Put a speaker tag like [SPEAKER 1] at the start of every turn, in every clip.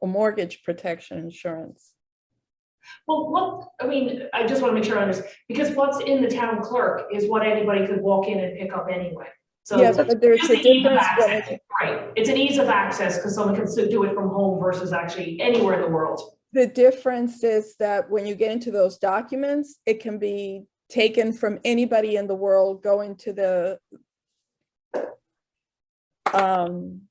[SPEAKER 1] or mortgage protection insurance.
[SPEAKER 2] Well, what, I mean, I just want to make sure I understand, because what's in the town clerk is what anybody could walk in and pick up anyway. So,
[SPEAKER 1] Yes, but there's
[SPEAKER 2] just
[SPEAKER 1] a
[SPEAKER 2] the ease of
[SPEAKER 1] difference when
[SPEAKER 2] access.
[SPEAKER 1] it-
[SPEAKER 2] right, it's an ease of access because someone can s- do it from home versus actually anywhere in the world.
[SPEAKER 1] The difference is that when you get into those documents, it can be taken from anybody in the world going to the um,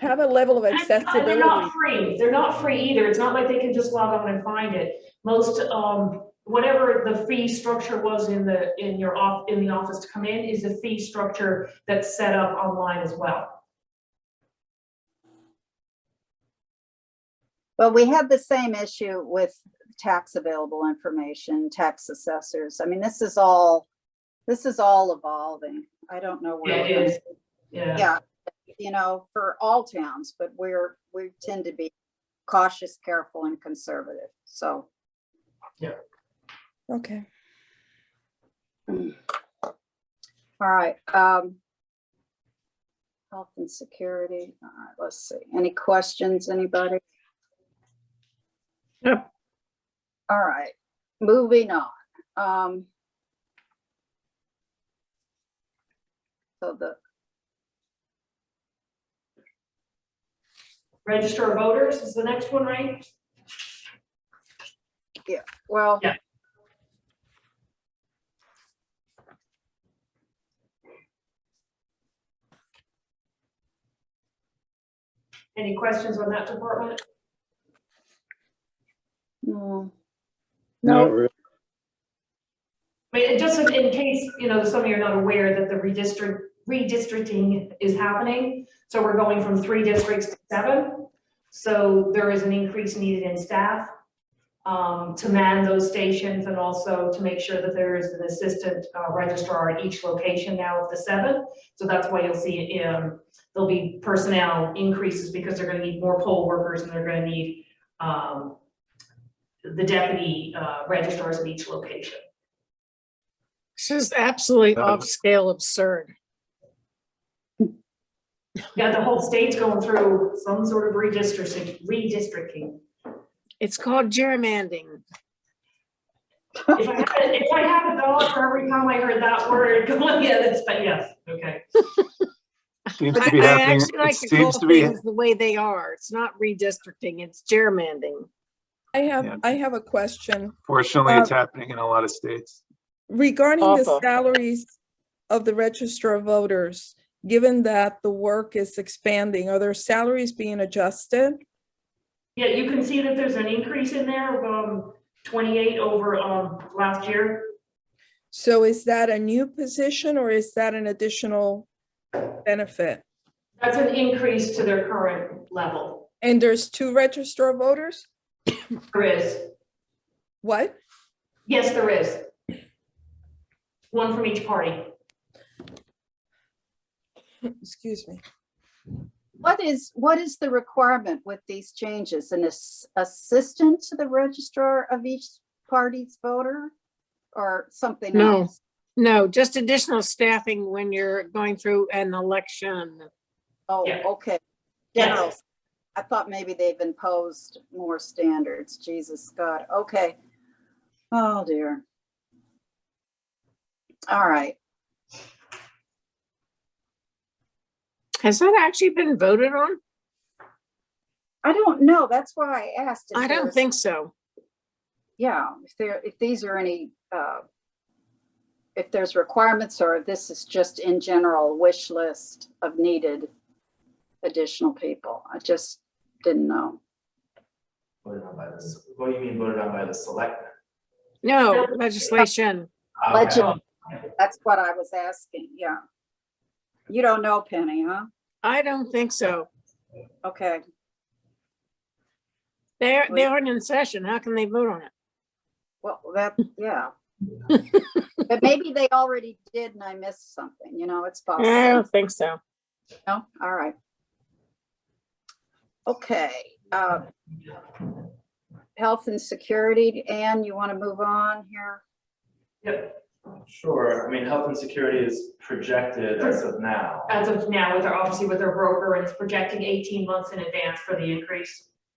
[SPEAKER 1] have a level of
[SPEAKER 2] And it's not- They're
[SPEAKER 1] accessibility.
[SPEAKER 2] not free, they're not free either. It's not like they can just log on and find it. Most, um, whatever the fee structure was in the, in your off, in the office to come in is a fee structure that's set up online as well.
[SPEAKER 3] But we had the same issue with tax available information, tax assessors. I mean, this is all, this is all evolving. I don't know where.
[SPEAKER 2] Yeah,
[SPEAKER 3] we're
[SPEAKER 2] it
[SPEAKER 3] gonna-
[SPEAKER 2] is. Yeah.
[SPEAKER 3] Yeah, you know, for all towns, but we're, we tend to be cautious, careful and conservative. So
[SPEAKER 1] Okay,
[SPEAKER 3] All right, um. Health and security, all right, let's see, any questions, anybody?
[SPEAKER 4] Yep.
[SPEAKER 3] All right, moving on, um. So the,
[SPEAKER 2] Register of voters is the next one, right?
[SPEAKER 3] well.
[SPEAKER 2] Yeah. Any questions on that department?
[SPEAKER 3] mm,
[SPEAKER 1] No.
[SPEAKER 4] Not really.
[SPEAKER 2] I mean, just in- in case, you know, some of you are not aware that the redistrict, redistricting is happening. So we're going from three districts to seven. So there is an increase needed in staff um, to man those stations and also to make sure that there is an assistant uh, registrar at each location now of the seven. So that's why you'll see, um, there'll be personnel increases because they're gonna need more poll workers and they're gonna need um, the deputy uh, registrars at each location.
[SPEAKER 5] This is absolutely
[SPEAKER 4] Um,
[SPEAKER 5] off-scale absurd.
[SPEAKER 2] Yeah, the whole state's going through some sort of redistricting, redistricting.
[SPEAKER 5] It's called gerrymandering.
[SPEAKER 2] If I had, if I had a dollar for every time I heard that word, going, yeah, that's, but yes, okay.
[SPEAKER 4] Seems
[SPEAKER 5] I
[SPEAKER 4] to be
[SPEAKER 5] I
[SPEAKER 4] happening,
[SPEAKER 5] actually
[SPEAKER 4] it
[SPEAKER 5] like to call
[SPEAKER 4] seems to be,
[SPEAKER 5] things the way they are. It's not redistricting, it's gerrymandering.
[SPEAKER 1] I have,
[SPEAKER 4] Yeah.
[SPEAKER 1] I have a question
[SPEAKER 4] fortunately, it's
[SPEAKER 1] Uh,
[SPEAKER 4] happening in a lot of states.
[SPEAKER 1] regarding the
[SPEAKER 5] Awful.
[SPEAKER 1] salaries of the register of voters. Given that the work is expanding, are their salaries being adjusted?
[SPEAKER 2] Yeah, you can see that there's an increase in there of, um, twenty-eight over, um, last year.
[SPEAKER 1] So is that a new position or is that an additional benefit?
[SPEAKER 2] That's an increase to their current level.
[SPEAKER 1] And there's two register of voters?
[SPEAKER 2] There is,
[SPEAKER 1] What?
[SPEAKER 2] yes, there is. One from each party.
[SPEAKER 1] Excuse me.
[SPEAKER 3] what is, what is the requirement with these changes? An ass- assistant to the registrar of each party's voter? Or something
[SPEAKER 5] No.
[SPEAKER 3] else?
[SPEAKER 5] No, just additional staffing when you're going through an election.
[SPEAKER 3] Oh,
[SPEAKER 2] Yeah.
[SPEAKER 3] okay.
[SPEAKER 2] Yes.
[SPEAKER 3] General. I thought maybe they've imposed more standards. Jesus, God, okay. Oh, dear. All right,
[SPEAKER 5] Has that actually been voted on?
[SPEAKER 3] I don't know. That's why I asked. if
[SPEAKER 5] I
[SPEAKER 3] there
[SPEAKER 5] don't
[SPEAKER 3] was-
[SPEAKER 5] think so.
[SPEAKER 3] Yeah, if there, if these are any, uh, if there's requirements or if this is just in general wish list of needed additional people. I just didn't know.
[SPEAKER 6] Voted on by the, what do you mean voted on by the selectmen?
[SPEAKER 5] No legislation.
[SPEAKER 6] Okay.
[SPEAKER 3] Legend. That's what I was asking, yeah. You don't know Penny, huh?
[SPEAKER 5] I don't think so.
[SPEAKER 3] Okay.
[SPEAKER 5] They're, they aren't in session. How can they vote on it?
[SPEAKER 3] Well, that, yeah. But maybe they already did and I missed something, you know, it's
[SPEAKER 5] I
[SPEAKER 3] possible.
[SPEAKER 5] don't think so.
[SPEAKER 3] No, all right. Okay, uh, health and security, Anne, you want to move on here?
[SPEAKER 2] Yep,
[SPEAKER 6] Sure, I mean, health and security is projected as of now.
[SPEAKER 2] as of now, with their, obviously with their broker, and it's projecting eighteen months in advance for the increase.